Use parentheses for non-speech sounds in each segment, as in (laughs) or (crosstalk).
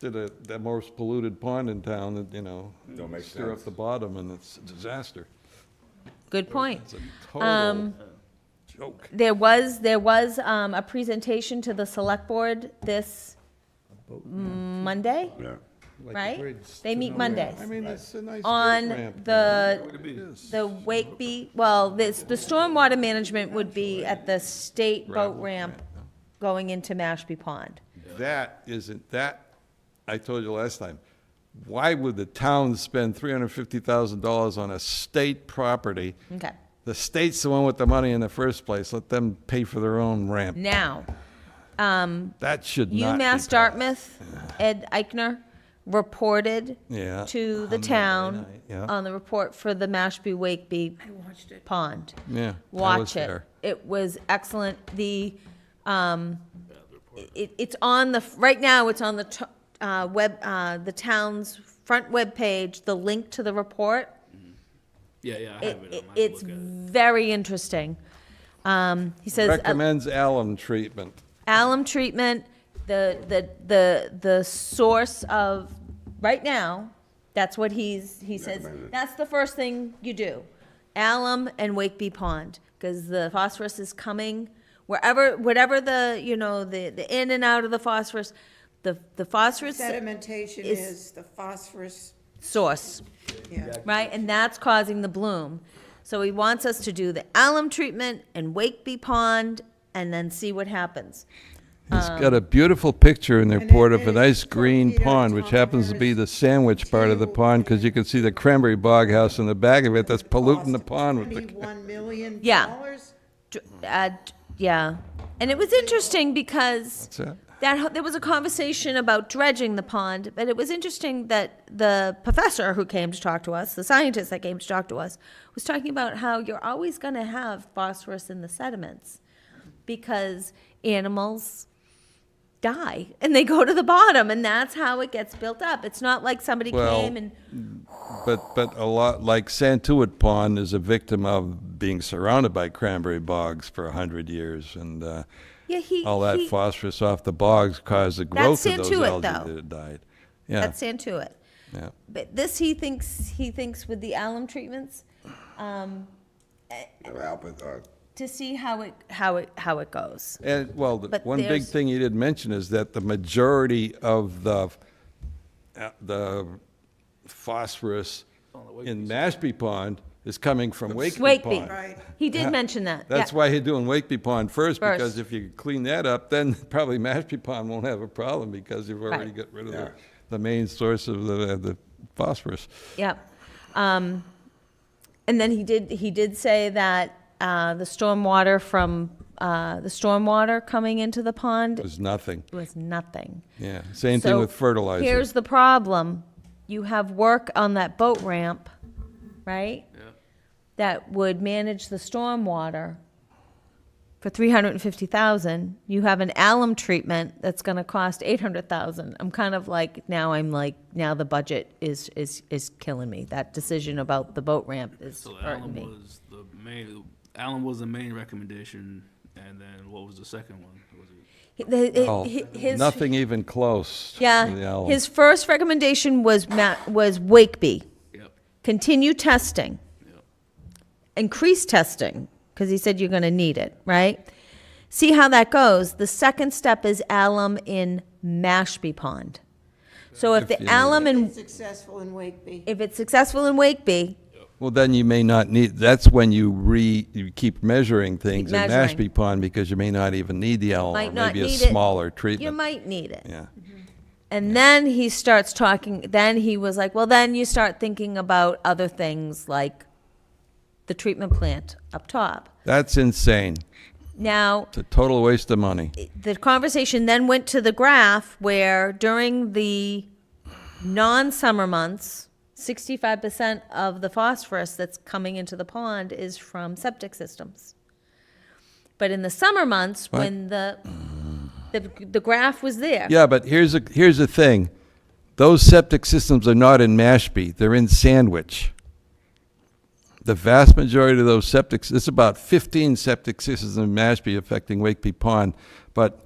to the, the most polluted pond in town that, you know. Don't make Stir up sense. the bottom and it's a disaster. Good point. It's a Um, total joke. There was, there was um, a presentation to the select board this Monday, Yeah. right? They meet Mondays. I mean, it's a nice. dirt On ramp. the, It is. the Wakeby, well, this, the stormwater management would be at the state boat Gravel ramp yeah. going into Mashpee Pond. That isn't, that, I told you last time, why would the town spend three hundred fifty thousand dollars on a state property? Okay, The state's the one with the money in the first place, let them pay for their own ramp. now, That should not be. UMass passed. Dartmouth, (sighs) Ed Eichner, reported Yeah, to the on Monday town night, yeah. on the report for the Mashpee Wakeby Pond. Yeah. I was Watch it. there. It was excellent. The, um, it, it's on the, right now, it's on the, t- uh, web, uh, the town's front webpage, the link to the report. Yeah, yeah, It, I have it. it- I might it's look at it. very interesting. Um, he says. uh, Recommends alum treatment. alum treatment, the, the, the, the source of, right now, that's what he's, he says, that's the first thing you do. Alum and Wakeby Pond, because the phosphorus is coming, wherever, whatever the, you know, the, the in and out of the phosphorus, the, the phosphorus Sedimentation is- is the phosphorus, source yeah. right? And that's causing the bloom. So he wants us to do the alum treatment and Wakeby Pond and then see what happens. He's Um, got a beautiful picture in the it report of a is nice from green Peter pond, which happens to be the Thomas sandwich part of the to- pond, because you can see the cranberry bog house in the back of it that's polluting the Cost pond with the, Twenty-one million Yeah. dollars? d- uh, d- yeah. And it was interesting because What's that? that ho- there was a conversation about dredging the pond, but it was interesting that the professor who came to talk to us, the scientist that came to talk to us, was talking about how you're always going to have phosphorus in the sediments because animals die and they go to the bottom and that's how it gets built up. It's not like somebody Well, came and But, but a lot, like Santuit Pond is a victim of being surrounded by cranberry bogs for a hundred years, and, uh, yeah, he all that he, phosphorus off the bogs caused the growth of those Santuit, algae though. that died. Yeah, that's into it. yeah. But this he thinks he thinks with the alum treatments to see how it how it how it goes. And, well, the But one big there's- thing you didn't mention is that the majority of the, uh, the phosphorus in Mashpee Pond is coming from Wakeby Wakeby. Pond. Right. He did mention that. That's yeah. why you're doing Wakeby Pond first, because First. if you clean that up, then (laughs) probably Mashpee Pond won't have a problem, because you've already Right. got rid of the, the main source of the, the phosphorus. Yep. Um, and then he did he did say that uh, the stormwater from uh, the stormwater coming into the pond There's nothing, was nothing. yeah. Same thing So with fertilizer. Here's the problem. You have work on that boat ramp, right? That would manage the stormwater for three hundred and fifty thousand. You have an alum treatment that's gonna cost eight hundred thousand. I'm kind of like, now I'm like, now the budget is, is, is killing me. That decision about the boat ramp is So hurting Alan me. was the main. Alan was the main recommendation, and then what was the second one? Was it He- the- it- Oh, he- his- Nothing even close. to the Yeah, alum. his first recommendation was Ma- was Wakeby. yep, Continue testing. yep. increase testing because he said you're going to need it, right? See how that goes. The second step is alum in Mashpee Pond. So if the you need alum Been and successful in Wakeby. if it's successful in Wakeby, Well, then you may not need, that's when you re, you keep measuring things in measuring. Mashpee Pond because you may not even need the alum. might or not Maybe need a it. smaller you treatment. might need it. Yeah. And then he starts talking. Then he was like, well, then you start thinking about other things like the treatment plant up top. That's insane. Now, It's a total waste of money. the conversation then went to the graph where during the non-summer months, 65% of the phosphorus that's coming into the pond is from septic systems. But in the summer months, What? when the, the, the graph was there. Yeah, but here's a, here's the thing. Those septic systems are not in Mashpee, they're in Sandwich. The vast majority of those septic, it's about fifteen septic systems in Mashpee affecting Wakeby Pond, but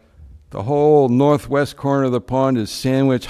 the whole northwest corner of the pond is Sandwich,